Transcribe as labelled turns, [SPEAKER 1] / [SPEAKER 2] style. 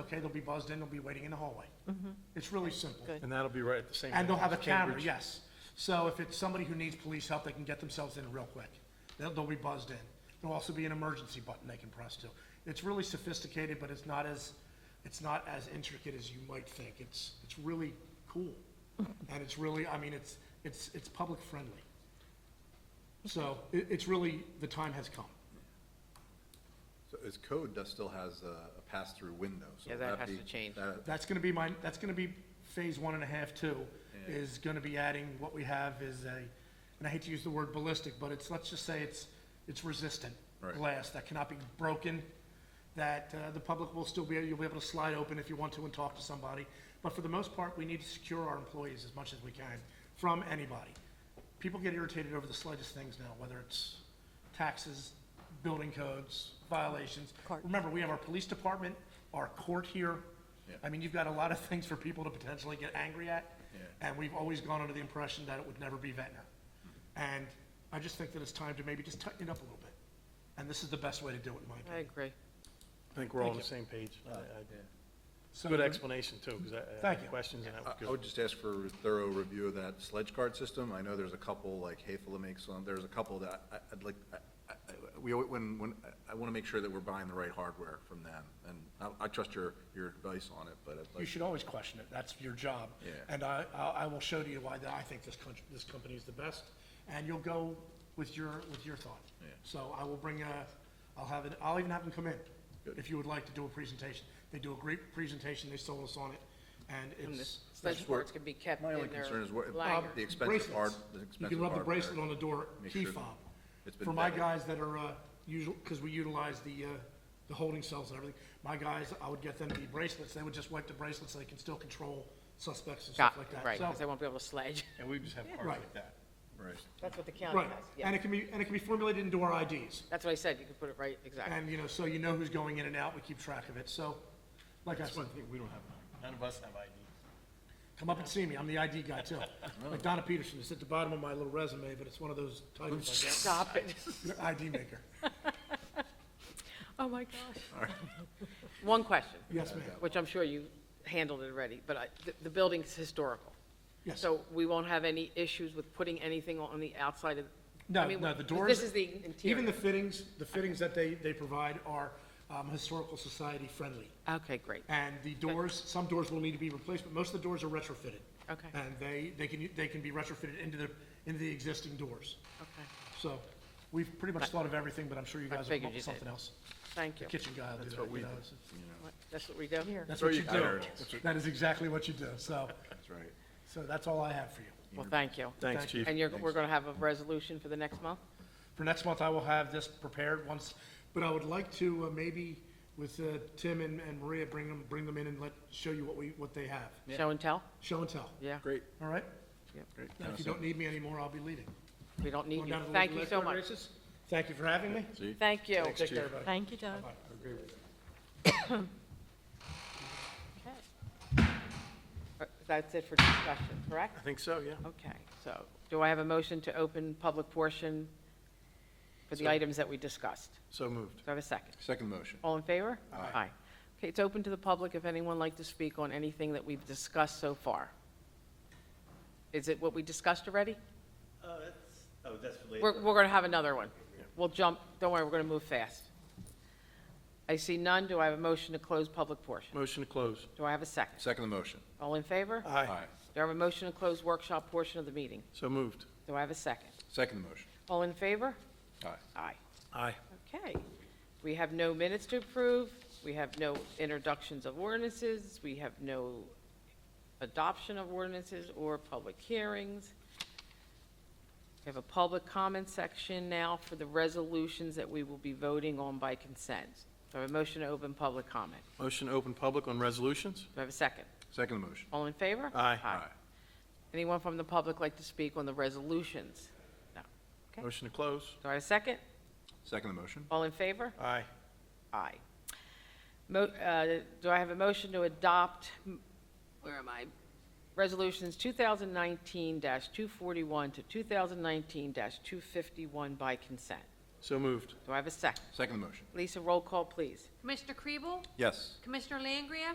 [SPEAKER 1] okay, they'll be buzzed in, they'll be waiting in the hallway. It's really simple.
[SPEAKER 2] good.
[SPEAKER 3] And that'll be right at the same.
[SPEAKER 1] And they'll
[SPEAKER 3] time
[SPEAKER 1] have a
[SPEAKER 3] as
[SPEAKER 1] camera,
[SPEAKER 3] Cambridge.
[SPEAKER 1] yes. So if it's somebody who needs police help, they can get themselves in real quick. They'll, they'll be buzzed in. There'll also be an emergency button they can press too. It's really sophisticated, but it's not as, it's not as intricate as you might think. It's, it's really cool. And it's really, I mean, it's, it's, it's public friendly. So it, it's really, the time has come.
[SPEAKER 4] So Is code does still has a a pass-through window, so
[SPEAKER 2] Yeah,
[SPEAKER 4] will
[SPEAKER 2] that
[SPEAKER 4] that
[SPEAKER 2] has
[SPEAKER 4] be-
[SPEAKER 2] to change.
[SPEAKER 4] that-
[SPEAKER 1] That's gonna be my, that's gonna be phase one and a half too, is gonna be adding, what we have is a, and I hate to use the word ballistic, but it's, let's just say it's, it's resistant
[SPEAKER 4] Right.
[SPEAKER 1] glass that cannot be broken, that uh, the public will still be, you'll be able to slide open if you want to and talk to somebody. But for the most part, we need to secure our employees as much as we can from anybody. People get irritated over the slightest things now, whether it's taxes, building codes, violations.
[SPEAKER 2] Court.
[SPEAKER 1] Remember, we have our police department, our court here. I mean, you've got a lot of things for people to potentially get angry at. And we've always gone under the impression that it would never be Ventnor. And I just think that it's time to maybe just tighten it up a little bit. And this is the best way to do it, in my
[SPEAKER 2] I
[SPEAKER 1] opinion.
[SPEAKER 2] agree.
[SPEAKER 3] I think we're all on the same page. I- I-
[SPEAKER 1] So-
[SPEAKER 3] Good explanation too, because I- I
[SPEAKER 1] Thank
[SPEAKER 3] had
[SPEAKER 1] you.
[SPEAKER 3] questions and that was
[SPEAKER 4] I
[SPEAKER 3] good.
[SPEAKER 4] I would just ask for a thorough review of that sledge card system. I know there's a couple, like Hayfla makes one, there's a couple that I- I'd like, I- I- we, alwa- when, when, I- I want to make sure that we're buying the right hardware from them, and I- I trust your, your advice on it, but I'd
[SPEAKER 1] You
[SPEAKER 4] like,
[SPEAKER 1] should always question it. That's your job.
[SPEAKER 4] Yeah.
[SPEAKER 1] And I, I I will show to you why that I think this country, this company is the best, and you'll go with your, with your thought.
[SPEAKER 4] Yeah.
[SPEAKER 1] So I will bring a, I'll have it, I'll even have them come in,
[SPEAKER 4] Good.
[SPEAKER 1] if you would like to do a presentation. They do a great presentation, they sold us on it, and
[SPEAKER 2] And the
[SPEAKER 1] it's.
[SPEAKER 2] sledge boards can be kept in
[SPEAKER 4] my
[SPEAKER 2] their
[SPEAKER 4] only concern is what,
[SPEAKER 2] liner.
[SPEAKER 4] the expensive hard,
[SPEAKER 1] Bracelets.
[SPEAKER 4] the expensive
[SPEAKER 1] You can rub the
[SPEAKER 4] hardware.
[SPEAKER 1] bracelet on the door,
[SPEAKER 4] Make
[SPEAKER 1] key
[SPEAKER 4] sure that
[SPEAKER 1] fob.
[SPEAKER 4] it's been
[SPEAKER 1] For my
[SPEAKER 4] vetted.
[SPEAKER 1] guys that are, uh, usual, because we utilize the, uh, the holding cells and everything, my guys, I would get them the bracelets, they would just wipe the bracelets, so they can still control suspects and stuff
[SPEAKER 2] Got-
[SPEAKER 1] like that.
[SPEAKER 2] Right,
[SPEAKER 1] So-
[SPEAKER 2] because they won't be able to sledge.
[SPEAKER 3] And we just have cards
[SPEAKER 1] Right.
[SPEAKER 3] like that.
[SPEAKER 4] Right.
[SPEAKER 2] That's what the county
[SPEAKER 1] Right,
[SPEAKER 2] has,
[SPEAKER 1] and
[SPEAKER 2] yeah.
[SPEAKER 1] it can be, and it can be formulated into our IDs,
[SPEAKER 2] That's what I said, you could put it right, exactly.
[SPEAKER 1] and, you know, so you know who's going in and out, we keep track of it, so, like I
[SPEAKER 3] That's
[SPEAKER 1] said,
[SPEAKER 3] one thing we don't have. None of us have ID.
[SPEAKER 1] come up and see me, I'm the ID guy too. Like Donna Peterson, it's at the bottom of my little resume, but it's one of those titles
[SPEAKER 2] Stop it.
[SPEAKER 1] I get, ID maker,
[SPEAKER 2] Oh, my gosh. One question,
[SPEAKER 1] yes, ma'am,
[SPEAKER 2] which I'm sure you handled it already, but I- the- the building's historical.
[SPEAKER 1] yes.
[SPEAKER 2] So we won't have any issues with putting anything on the outside of? I
[SPEAKER 1] No,
[SPEAKER 2] mean,
[SPEAKER 1] no, the
[SPEAKER 2] this
[SPEAKER 1] doors.
[SPEAKER 2] is the
[SPEAKER 1] Even
[SPEAKER 2] interior.
[SPEAKER 1] the fittings, the fittings that they, they provide are um, historical society friendly.
[SPEAKER 2] Okay, great.
[SPEAKER 1] And the doors, some doors will need to be replaced, but most of the doors are retrofitted.
[SPEAKER 2] Okay.
[SPEAKER 1] And they, they can, they can be retrofitted into the, into the existing doors.
[SPEAKER 2] Okay,
[SPEAKER 1] So we've pretty much thought of everything, but I'm sure you
[SPEAKER 2] I
[SPEAKER 1] guys will come
[SPEAKER 2] figured
[SPEAKER 1] up
[SPEAKER 2] you
[SPEAKER 1] with something
[SPEAKER 2] did.
[SPEAKER 1] else.
[SPEAKER 2] thank
[SPEAKER 1] The
[SPEAKER 2] you.
[SPEAKER 1] kitchen guy will do that, you know, so-
[SPEAKER 2] What- That's what we do? Here.
[SPEAKER 1] That's
[SPEAKER 4] Throw
[SPEAKER 1] what you
[SPEAKER 4] your
[SPEAKER 1] do.
[SPEAKER 4] cards.
[SPEAKER 1] That is exactly what you do, so,
[SPEAKER 4] That's right.
[SPEAKER 1] so that's all I have for you.
[SPEAKER 2] Well, thank you.
[SPEAKER 3] Thanks, Chief.
[SPEAKER 2] And you're, we're going to have a resolution for the next month?
[SPEAKER 1] For next month, I will have this prepared once, but I would like to uh, maybe with uh, Tim and and Maria, bring them, bring them in and let, show you what we, what they have.
[SPEAKER 2] Show and tell?
[SPEAKER 1] Show and tell,
[SPEAKER 2] Yeah.
[SPEAKER 4] Great,
[SPEAKER 1] all right?
[SPEAKER 2] Yep.
[SPEAKER 4] great.
[SPEAKER 1] Now, If you don't need me anymore, I'll be leaving.
[SPEAKER 2] We don't need
[SPEAKER 1] Going
[SPEAKER 2] you.
[SPEAKER 1] down to the
[SPEAKER 2] Thank you
[SPEAKER 1] Lake
[SPEAKER 2] so
[SPEAKER 1] Road
[SPEAKER 2] much.
[SPEAKER 1] races. Thank you for having me.
[SPEAKER 4] See?
[SPEAKER 2] Thank you.
[SPEAKER 1] Take care, everybody.
[SPEAKER 5] Thank you, Doug.
[SPEAKER 2] Okay. Uh, That's it for discussion, correct?
[SPEAKER 3] I think so, yeah.
[SPEAKER 2] Okay, so do I have a motion to open public portion for the items that we discussed?
[SPEAKER 3] So moved.
[SPEAKER 2] Do I have a second?
[SPEAKER 4] Second motion.
[SPEAKER 2] All in favor? Aye. Okay, it's open to the public if anyone like to speak on anything that we've discussed so far. Is it what we discussed already?
[SPEAKER 6] Oh, that's, oh, that's related.
[SPEAKER 2] We're, we're going to have another one. We'll jump, don't worry, we're going to move fast. I see none, do I have a motion to close public portion?
[SPEAKER 3] Motion to close.
[SPEAKER 2] Do I have a second?
[SPEAKER 4] Second motion.
[SPEAKER 2] All in favor?
[SPEAKER 3] Aye.
[SPEAKER 2] Do I have a motion to close workshop portion of the meeting?
[SPEAKER 3] So moved.
[SPEAKER 2] Do I have a second?
[SPEAKER 4] Second motion.
[SPEAKER 2] All in favor?
[SPEAKER 4] Aye.
[SPEAKER 2] Aye.
[SPEAKER 3] Aye.
[SPEAKER 2] Okay. We have no minutes to approve. We have no introductions of ordinances. We have no adoption of ordinances or public hearings. We have a public comment section now for the resolutions that we will be voting on by consent. Do I have a motion to open public comment?
[SPEAKER 3] Motion to open public on resolutions?
[SPEAKER 2] Do I have a second?
[SPEAKER 4] Second motion.
[SPEAKER 2] All in favor?
[SPEAKER 3] Aye.
[SPEAKER 2] Anyone from the public like to speak on the resolutions? No. Okay.
[SPEAKER 3] Motion to close?
[SPEAKER 2] Do I have a second?
[SPEAKER 4] Second motion.
[SPEAKER 2] All in favor?
[SPEAKER 3] Aye.
[SPEAKER 2] Aye. Mo, uh, do I have a motion to adopt, m- where am I? Resolutions two thousand nineteen two forty-one to two thousand nineteen two fifty-one by consent.
[SPEAKER 3] So moved.
[SPEAKER 2] Do I have a second?
[SPEAKER 4] Second motion.
[SPEAKER 2] Lisa, roll call, please.
[SPEAKER 7] Commissioner Kriebel?
[SPEAKER 4] Yes.
[SPEAKER 7] Commissioner Langria?